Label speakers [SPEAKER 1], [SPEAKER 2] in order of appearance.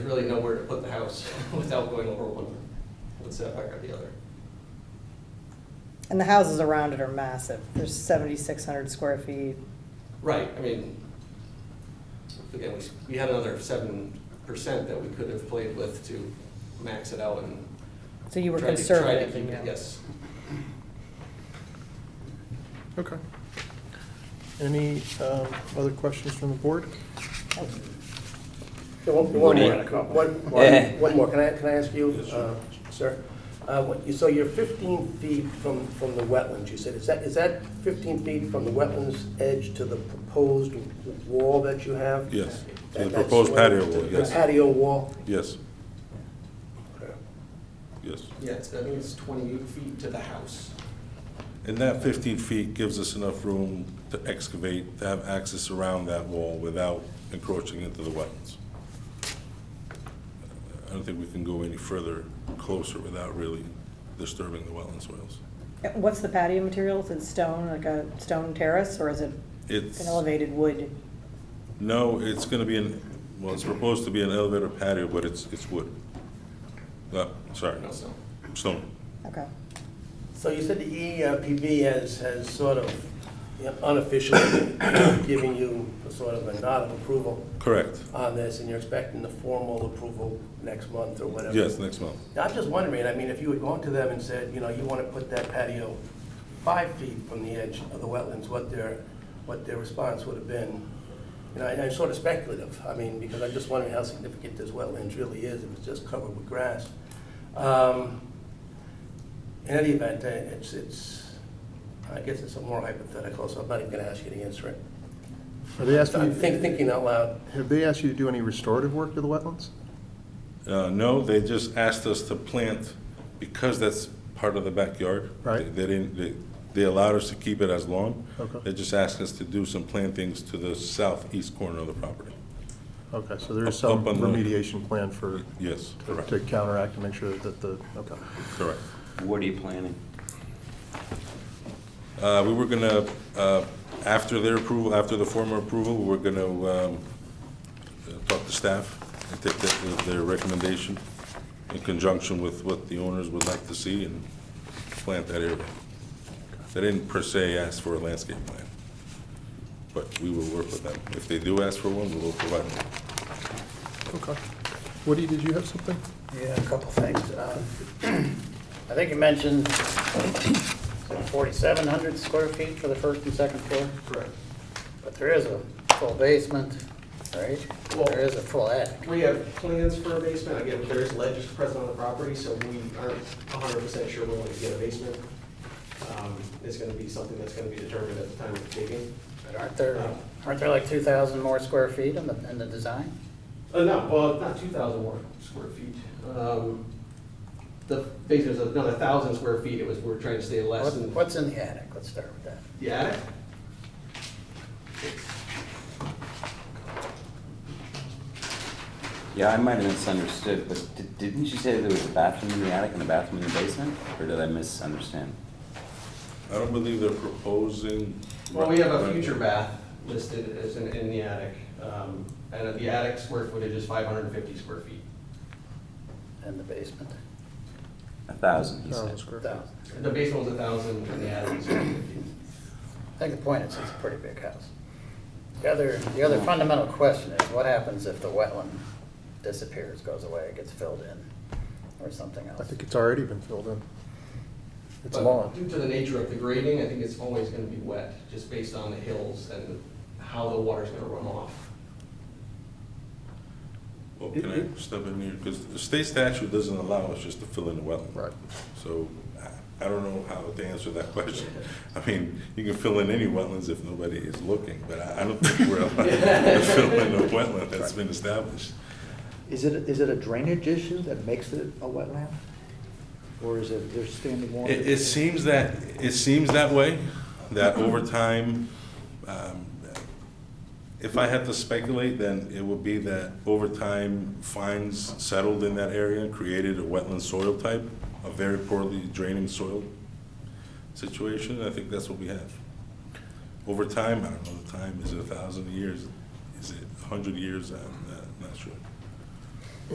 [SPEAKER 1] There's really nowhere to put the house without going over one, one setback or the other.
[SPEAKER 2] And the houses around it are massive. There's seventy-six hundred square feet.
[SPEAKER 1] Right, I mean, again, we, we had another seven percent that we could have played with to max it out and.
[SPEAKER 2] So you were
[SPEAKER 1] tried to- tried to
[SPEAKER 2] conservative,
[SPEAKER 1] keep
[SPEAKER 2] you
[SPEAKER 1] it-
[SPEAKER 2] know.
[SPEAKER 1] Yes.
[SPEAKER 3] Okay. Any um, other questions from the board?
[SPEAKER 4] One one more,
[SPEAKER 5] Morning.
[SPEAKER 4] one,
[SPEAKER 5] Eh.
[SPEAKER 4] one- one more, can I, can I ask you, uh, sir? Uh, what you- So you're 15 feet from, from the wetlands, you said, is that, is that 15 feet from the wetlands edge to the proposed wall that you have?
[SPEAKER 6] Yes, to the
[SPEAKER 4] That- that's
[SPEAKER 6] proposed
[SPEAKER 4] where-
[SPEAKER 6] patio wall,
[SPEAKER 4] the
[SPEAKER 6] yes.
[SPEAKER 4] Patio wall?
[SPEAKER 6] Yes,
[SPEAKER 4] Okay.
[SPEAKER 6] yes.
[SPEAKER 1] Yeah, it's, I think it's twenty-eight feet to the house.
[SPEAKER 6] And that 15 feet gives us enough room to excavate, to have access around that wall without encroaching into the wetlands. I don't think we can go any further closer without really disturbing the wetland soils.
[SPEAKER 2] What's the patio material? Is it stone, like a stone terrace, or is it
[SPEAKER 6] It's,
[SPEAKER 2] an elevated wood?
[SPEAKER 6] no, it's going to be an, well, it's proposed to be an elevator patio, but it's, it's wood. No, sorry,
[SPEAKER 1] No, so,
[SPEAKER 6] stone.
[SPEAKER 2] Okay.
[SPEAKER 4] So you said the EPB has, has sort of you know, unofficially giving you a sort of a nod of approval
[SPEAKER 6] Correct.
[SPEAKER 4] on this, and you're expecting the formal approval next month or whatever?
[SPEAKER 6] Yes, next month.
[SPEAKER 4] Now, I'm just wondering, I mean, if you had gone to them and said, you know, you want to put that patio five feet from the edge of the wetlands, what their, what their response would have been. You know, and I'm sort of speculative, I mean, because I'm just wondering how significant this wetlands really is, if it's just covered with grass. Um, In any event, uh, it's, it's, I guess it's a more hypothetical, so I'm not even going to ask you to answer it.
[SPEAKER 3] Are they asking,
[SPEAKER 4] I'm think-
[SPEAKER 3] you-
[SPEAKER 4] thinking out loud.
[SPEAKER 3] have they asked you to do any restorative work to the wetlands?
[SPEAKER 6] Uh, no, they just asked us to plant, because that's part of the backyard.
[SPEAKER 3] Right.
[SPEAKER 6] They didn't, they, they allowed us to keep it as lawn.
[SPEAKER 3] Okay.
[SPEAKER 6] They just asked us to do some plantings to the southeast corner of the property.
[SPEAKER 3] Okay, so there is
[SPEAKER 6] Up-
[SPEAKER 3] some
[SPEAKER 6] up on the-
[SPEAKER 3] remediation plan for,
[SPEAKER 6] Yes,
[SPEAKER 3] to-
[SPEAKER 6] correct,
[SPEAKER 3] to counteract and make sure that the, okay.
[SPEAKER 6] correct.
[SPEAKER 5] What are you planning?
[SPEAKER 6] Uh, we were gonna, uh, after their approval, after the former approval, we were gonna, um, uh, talk to staff and take their, their recommendation in conjunction with what the owners would like to see and plant that area. They didn't per se ask for a landscape plan, but we will work with them. If they do ask for one, we will provide one.
[SPEAKER 3] Okay. Woody, did you have something?
[SPEAKER 7] Yeah, a couple things. Uh, I think you mentioned 4,700 square feet for the first and second floor,
[SPEAKER 3] Correct.
[SPEAKER 7] but there is a full basement, right? There is a full attic.
[SPEAKER 1] we have plans for a basement, again, there is ledge present on the property, so we aren't hundred percent sure we're going to get a basement. Um, it's gonna be something that's gonna be determined at the time of digging.
[SPEAKER 7] But aren't there,
[SPEAKER 1] Uh,
[SPEAKER 7] aren't there like 2,000 more square feet in the, in the design?
[SPEAKER 1] Uh, no, well, not two thousand more square feet. Um, The, basically, there's another thousand square feet, it was, we we're trying to stay less
[SPEAKER 7] What-
[SPEAKER 1] than.
[SPEAKER 7] What's in the attic? Let's start with that.
[SPEAKER 1] The attic?
[SPEAKER 5] Yeah, I might have misunderstood, but di- didn't you say there was a bathroom in the attic and a bathroom in the basement? Or did I misunderstand?
[SPEAKER 6] I don't believe they're proposing.
[SPEAKER 1] Well, we have a
[SPEAKER 6] Right.
[SPEAKER 1] future bath listed as in, in the attic, um, and the attic square footage is five hundred and fifty square feet.
[SPEAKER 7] In the basement?
[SPEAKER 5] A thousand, he said.
[SPEAKER 3] square feet.
[SPEAKER 7] 1,000.
[SPEAKER 1] The basement was a thousand, and the attic is fifty.
[SPEAKER 7] I think the point is, it's a pretty big house. The other, the other fundamental question is, what happens if the wetland disappears, goes away, gets filled in, or something else?
[SPEAKER 3] I think it's already been filled in. It's
[SPEAKER 1] But
[SPEAKER 3] lawn.
[SPEAKER 1] Due to the nature of the grading, I think it's always gonna be wet, just based on the hills and how the water's gonna run off.
[SPEAKER 6] Well, can I step in here? Because the state statute doesn't allow us just to fill in the wetland.
[SPEAKER 3] Right.
[SPEAKER 6] So I- I don't know how to answer that question. I mean, you can fill in any wetlands if nobody is looking, but I I don't think we're allowed to fill in a wetland that's been established.
[SPEAKER 8] Is it, is it a drainage issue that makes it a wetland? Or is it, there's standing water?
[SPEAKER 6] It, it seems that, it seems that way, that over time, um, if I had to speculate, then it would be that over time, fines settled in that area and created a wetland soil type, a very poorly draining soil situation. I think that's what we have. Over time, I don't know the time, is it a thousand years? Is it a hundred years? I'm uh, not sure.